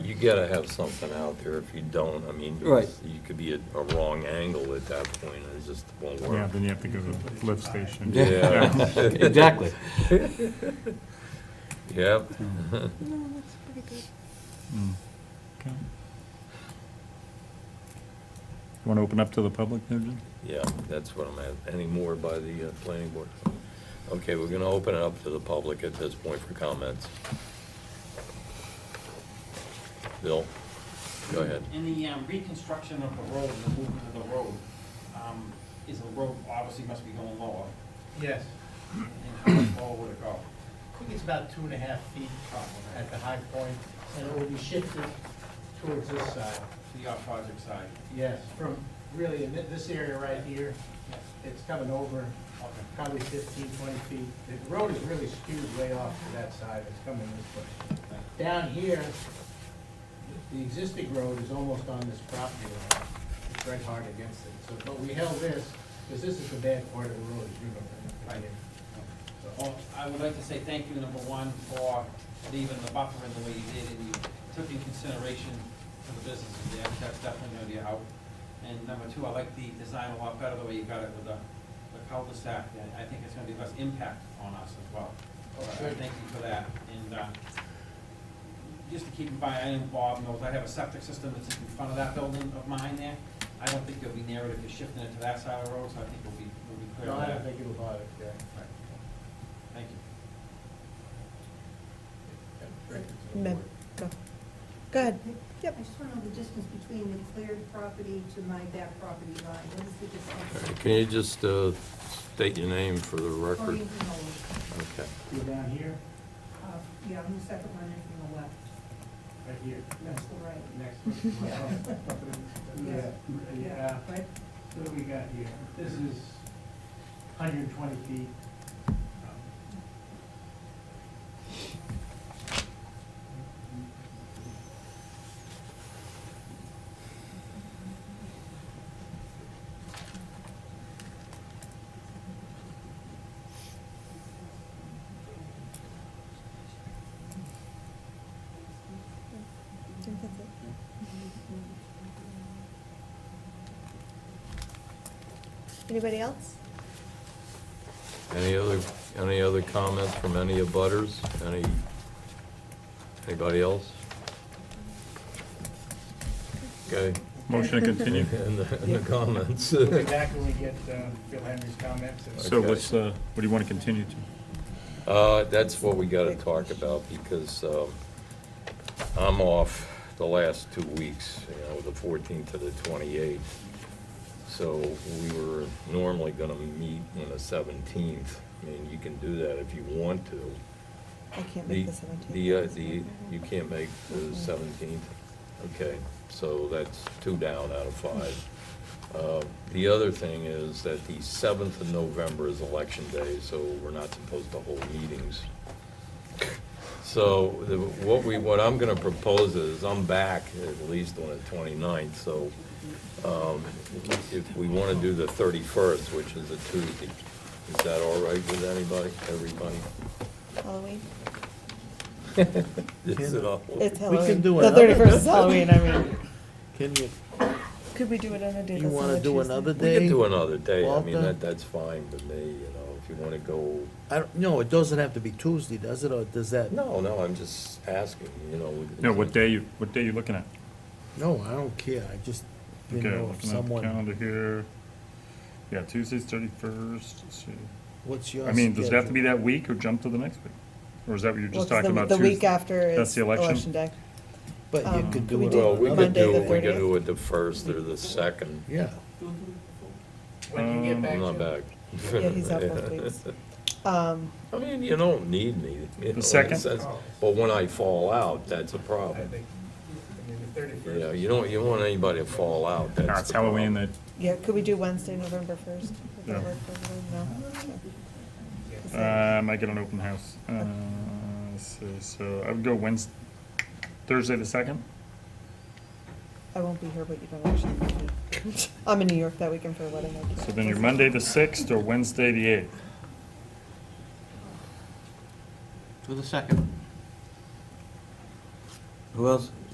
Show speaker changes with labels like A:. A: gotta have something out there. If you don't, I mean,
B: Right.
A: you could be at a wrong angle at that point, and it just won't
C: Yeah,
A: work.
C: then you have to go to the lift station.
B: Yeah. Exactly.
A: Yep,
D: No, that's pretty good.
C: Mm. Okay. You Want to open up to the public there, Jim?
A: yeah, that's what I'm at. Any more by the uh, planning board? Okay, we're gonna open it up to the public at this point for comments. Bill, go ahead.
E: In the um, reconstruction of the road, the movement of the road, um, is the road obviously must be going lower,
F: Yes,
E: and how much lower would it go?
F: I think it's about two and a half feet at the high point, and it will be shifted towards this side.
E: To the off-project side?
F: Yes, from really in thi- this area right here, it's coming over probably 15, 20 feet. The road is really skewed way off to that side, it's coming this way. Down here, the existing road is almost on this property line, it's right hard against it. So, but we held this, because this is the bad part of the road, as you know, right here.
E: Well, uh, I would like to say thank you, number one, for leaving the buffer in the way you did, and you took in consideration for the businesses there, that's definitely gonna be a help. And number two, I like the design a lot better, the way you got it with the the cul-de-sac, and I think it's gonna be less impact on us as well.
F: Oh,
E: Uh,
F: good.
E: Thank you for that, and, uh, just to keep in mind, I am Bob knows, I have a septic system that's in front of that building of mine there. I don't think you'll be near it if you're shifting it to that side of the road, so I think we'll be, we'll be clear
F: No,
E: on
F: I
E: that.
F: don't think it'll bother, yeah.
E: Thank you.
D: Ma'am, go. Go ahead. Yep.
G: I just want to know the distance between the cleared property to my back property line. What is the
A: All
G: distance?
A: right, Can you just uh, state your name for the
G: Oh,
A: record?
G: Going from the,
A: Okay.
F: You're down here,
G: uh, yeah, on the second one and from the left,
F: right here.
G: that's the right.
F: Next.
G: Yeah.
F: Yeah, yeah,
G: Right?
F: what do we got here? This is hundred and twenty feet.
D: I think that's it. Anybody else?
A: Any other, any other comments from any of butters? Any, anybody else? Okay,
C: Motion to continue.
A: in the, in the comments.
F: We'll be back when we get uh, Phil Henry's comments. and-
C: So what's, uh, what do you want to continue to?
A: Uh, that's what we gotta talk about, because, um, I'm off the last two weeks, you know, the fourteenth to the twenty-eighth. So we were normally gonna meet on the seventeenth, I mean, you can do that if you want to.
D: I can't
A: The,
D: make the seventeenth.
A: the, uh, the, you can't make the seventeenth, okay, so that's two down out of five. Uh, The other thing is that the seventh of November is election day, so we're not supposed to hold meetings. So the- what we, what I'm gonna propose is, I'm back at least on the 29th, so um, if we wanna do the thirty-first, which is a Tuesday, is that all right with anybody, everybody?
D: Halloween.
A: It's uh, an awful-
D: It's
H: We
D: Halloween.
H: can do
D: The
H: another-
D: thirty-first is Halloween, I mean,
H: Can you,
D: could we do it on a day that's on a
H: you want to do
D: Tuesday?
H: another
A: We
H: day?
A: could do another day, I mean,
H: Walter?
A: that, that's fine with me, you know, if you wanna go,
H: I don't, no, it doesn't have to be Tuesday, does it, or does that?
A: no, no, I'm just asking, you know. we-
C: No, what day you, what day you looking at?
H: No, I don't care, I just
C: Okay,
H: didn't know if
C: looking at the
H: someone,
C: calendar here. Yeah, Tuesday's thirty-first,
H: what's your
C: I mean, does it have to be
H: schedule?
C: that week or jump to the next week? Or is that what you're
D: Well,
C: just
D: 'cause
C: talking
D: the-
C: about?
D: The week
C: Tuesday?
D: after
C: That's
D: is
C: the election?
D: election day.
H: But you
D: um,
H: could
D: could
H: do
D: we
H: it
D: do
A: Well, we
H: on
A: could
H: another,
D: Monday,
A: do,
D: the
A: it- we could
D: 30th?
A: do it the first or the second,
H: yeah.
F: When can you get back
A: I'm
F: to?
D: Um,
A: not back.
D: Yeah, he's out both weeks. Um,
A: I mean, you don't need me. you know, in a
C: second?
A: sense, But when I fall out, that's a
F: I
A: problem,
F: think, I
A: you
F: mean, the
A: know,
F: thirty-first.
A: you don't, you don't want anybody to fall out,
C: Nah,
A: that's
C: it's
A: the problem.
C: Halloween, that,
D: yeah, could we do Wednesday, November first? Would that
C: No.
D: work for everyone? No? Is that-
C: uh, I might get an open house. Uh, so, so I would go Wednesday, Thursday the second?
D: I won't be here, but you don't actually need me. I'm in New York that weekend for a wedding. I
C: So
D: can't-
C: then you're Monday the sixth or Wednesday the eighth?
B: Who else?